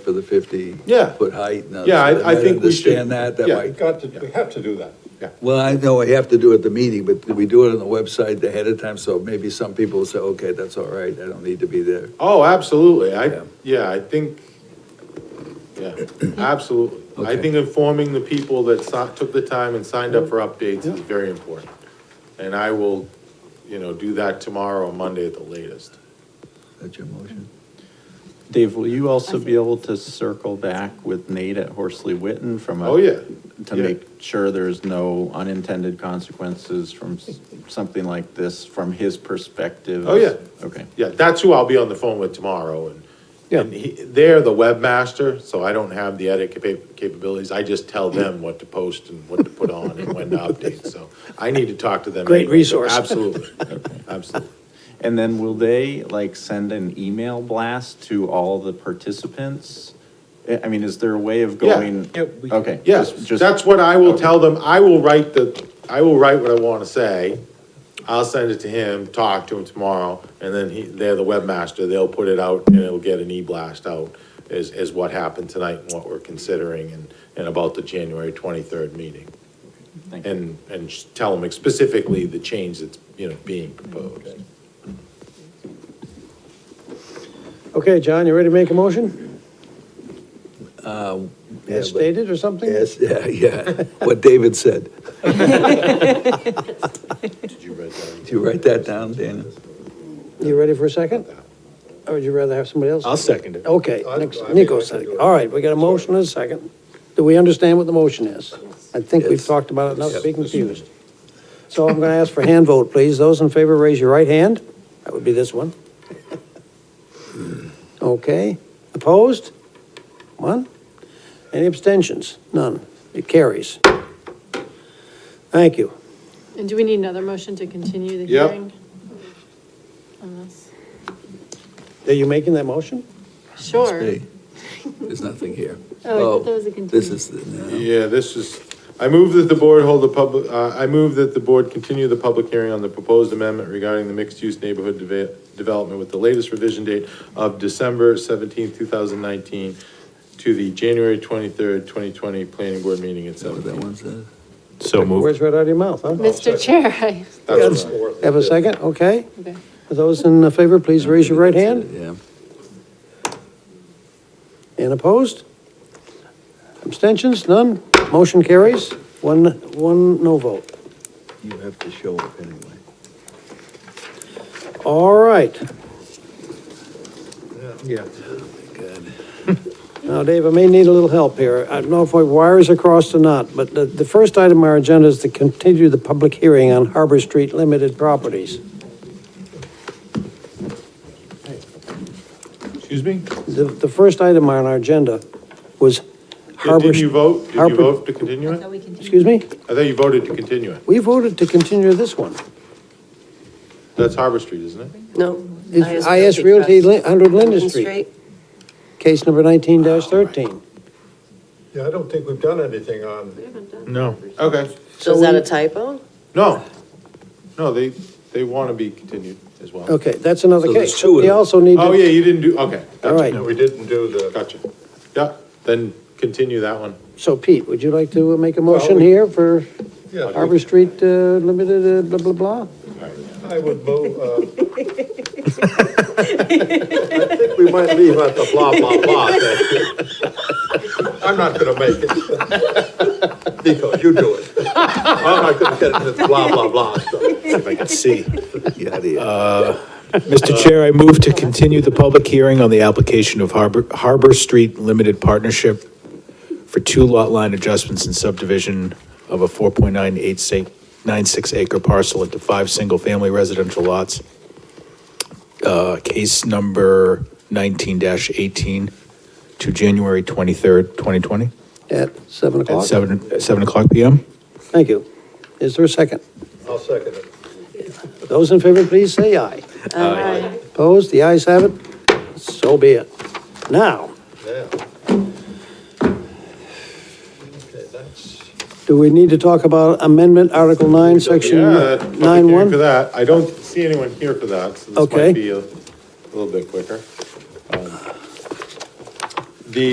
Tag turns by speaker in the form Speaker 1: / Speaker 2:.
Speaker 1: for the fifty.
Speaker 2: Yeah.
Speaker 1: Foot height and.
Speaker 2: Yeah, I-
Speaker 1: others.
Speaker 2: I think we should-
Speaker 1: Understand that, that
Speaker 2: yeah.
Speaker 1: might,
Speaker 3: Got to, we have to do that.
Speaker 1: well, I know I have to do it at the meeting, but we do it on the website ahead of time, so maybe some people will say, okay, that's all right, I don't need to be there.
Speaker 2: Oh, absolutely.
Speaker 1: Yeah.
Speaker 2: I, yeah, I think, yeah, absolutely. I
Speaker 1: Okay.
Speaker 2: think informing the people that si- took the time and signed up for updates is very important. And I will, you know, do that tomorrow or Monday at the latest.
Speaker 1: That's your motion?
Speaker 4: Dave, will you also be able to circle back with Nate at Horsley Witten from a?
Speaker 2: Oh, yeah.
Speaker 4: To
Speaker 2: Yeah.
Speaker 4: make sure there's no unintended consequences from s- something like this, from his perspective?
Speaker 2: Oh, yeah.
Speaker 4: Okay.
Speaker 2: Yeah, that's who I'll be on the phone with tomorrow and, and he, they're the webmaster, so I don't have the edit capa- capabilities. I just tell them what to post and what to put on and when to update, so I need to talk to them.
Speaker 5: Great
Speaker 2: anyway, so
Speaker 5: resource.
Speaker 2: Absolutely, absolutely.
Speaker 4: And then will they like send an email blast to all the participants? I I mean, is there a way of
Speaker 2: Yeah.
Speaker 4: going? Okay.
Speaker 2: Yes,
Speaker 4: just- just-
Speaker 2: that's what I will tell them, I will write the, I will write what I wanna say. I'll send it to him, talk to him tomorrow, and then he, they're the webmaster, they'll put it out and it'll get an e-blast out is, is what happened tonight and what we're considering and, and about the January twenty-third meeting.
Speaker 4: Thank you.
Speaker 2: And, and just tell them specifically the change that's, you know, being proposed.
Speaker 5: Okay, John, you ready to make a motion? As
Speaker 1: Yeah, but-
Speaker 5: stated or something?
Speaker 1: Yes, yeah, yeah, what David said.
Speaker 2: Did you write that?
Speaker 1: Did you write that down, Dana?
Speaker 5: You ready for a second? Or would you rather have somebody else?
Speaker 6: I'll second it.
Speaker 5: Okay,
Speaker 3: I-
Speaker 5: next,
Speaker 3: I mean, I
Speaker 5: Nico
Speaker 3: can do
Speaker 5: second.
Speaker 3: it.
Speaker 5: All right, we got a motion and a second. Do we understand what the motion is? I think we've
Speaker 1: Yes.
Speaker 5: talked about it enough to be
Speaker 1: Yep.
Speaker 5: confused. So I'm going to ask for a hand vote, please. Those in favor, raise your right hand. That would be this one. Okay, opposed? One. Any abstentions? None. It carries. Thank you.
Speaker 7: And do we need another motion to continue the
Speaker 2: Yep.
Speaker 7: hearing? on this?
Speaker 5: Are you making that motion?
Speaker 7: Sure.
Speaker 1: Hey, there's nothing here.
Speaker 7: Oh, I thought that was a
Speaker 1: This
Speaker 7: continuation.
Speaker 1: is, the- no.
Speaker 2: Yeah, this is, I move that the board hold the public, uh, I move that the board continue the public hearing on the proposed amendment regarding the mixed-use neighborhood deve- development with the latest revision date of December seventeenth, two thousand nineteen, to the January twenty-third, twenty twenty planning board meeting at
Speaker 1: Is that what that
Speaker 2: seven.
Speaker 1: one says?
Speaker 6: So moved.
Speaker 5: Words right out of your mouth, huh?
Speaker 7: Mr. Chair, I,
Speaker 2: That's what I-
Speaker 5: Have a second? Okay.
Speaker 7: okay.
Speaker 5: Those in favor, please raise your right hand.
Speaker 1: Yeah.
Speaker 5: And opposed? Abstentions? None? Motion carries. One, one no vote.
Speaker 1: You have to show up anyway.
Speaker 5: All right.
Speaker 2: Yeah.
Speaker 1: Good.
Speaker 5: Now, Dave, I may need a little help here. I don't know if my wires are crossed or not, but the, the first item on our agenda is to continue the public hearing on Harbor Street Limited Properties.
Speaker 2: Excuse me?
Speaker 5: The, the first item on our agenda was
Speaker 2: Yeah,
Speaker 5: Harbor.
Speaker 2: Didn't you vote? Did you
Speaker 5: Harbor-
Speaker 2: vote to continue it?
Speaker 5: Excuse me?
Speaker 2: I thought you voted to continue it.
Speaker 5: We voted to continue this one.
Speaker 2: That's Harbor Street, isn't it?
Speaker 8: No.
Speaker 5: It's IS Realty, Lin- 100 Linden Street, case number 19-13.
Speaker 3: Yeah, I don't think we've done anything on,
Speaker 2: No. Okay.
Speaker 8: So is that a typo?
Speaker 2: No. No, they, they want to be continued as well.
Speaker 5: Okay, that's another
Speaker 1: So there's
Speaker 5: case.
Speaker 1: two of
Speaker 5: We
Speaker 1: them.
Speaker 5: also need to.
Speaker 2: Oh, yeah, you didn't do, okay.
Speaker 5: All right.
Speaker 3: we didn't do the,
Speaker 2: Gotcha. Yeah, then continue that one.
Speaker 5: So Pete, would you like to uh, make a motion here for
Speaker 3: yeah,
Speaker 5: Harbor Street uh, Limited, uh, blah, blah, blah?
Speaker 3: I would move, uh. I think we might leave out the blah, blah, blah. I'm not gonna make it. Nico, you do it. I'm not gonna get into the blah, blah, blah stuff.
Speaker 6: If I could see.
Speaker 1: Get out of here.
Speaker 6: Mr. Chair, I move to continue the public hearing on the application of Harbor, Harbor Street Limited Partnership for two lot line adjustments and subdivision of a 4.9896 acre parcel into five single-family residential lots. Uh, Case number 19-18 to January 23rd, 2020,
Speaker 5: At seven
Speaker 6: at
Speaker 5: o'clock?
Speaker 6: 7, at 7 o'clock PM.
Speaker 5: Thank you. Is there a second?
Speaker 3: I'll second it.
Speaker 5: Those in favor, please say aye.
Speaker 8: Aye.
Speaker 5: Opposed? The ayes have it. So be it. Now,
Speaker 3: Yeah. Okay, that's,
Speaker 5: do we need to talk about Amendment Article 9, Section
Speaker 2: Yeah, that's public hearing For
Speaker 5: 9-1?
Speaker 2: that, I don't see anyone here for that, so this
Speaker 5: Okay.
Speaker 2: might be a little bit quicker. Um,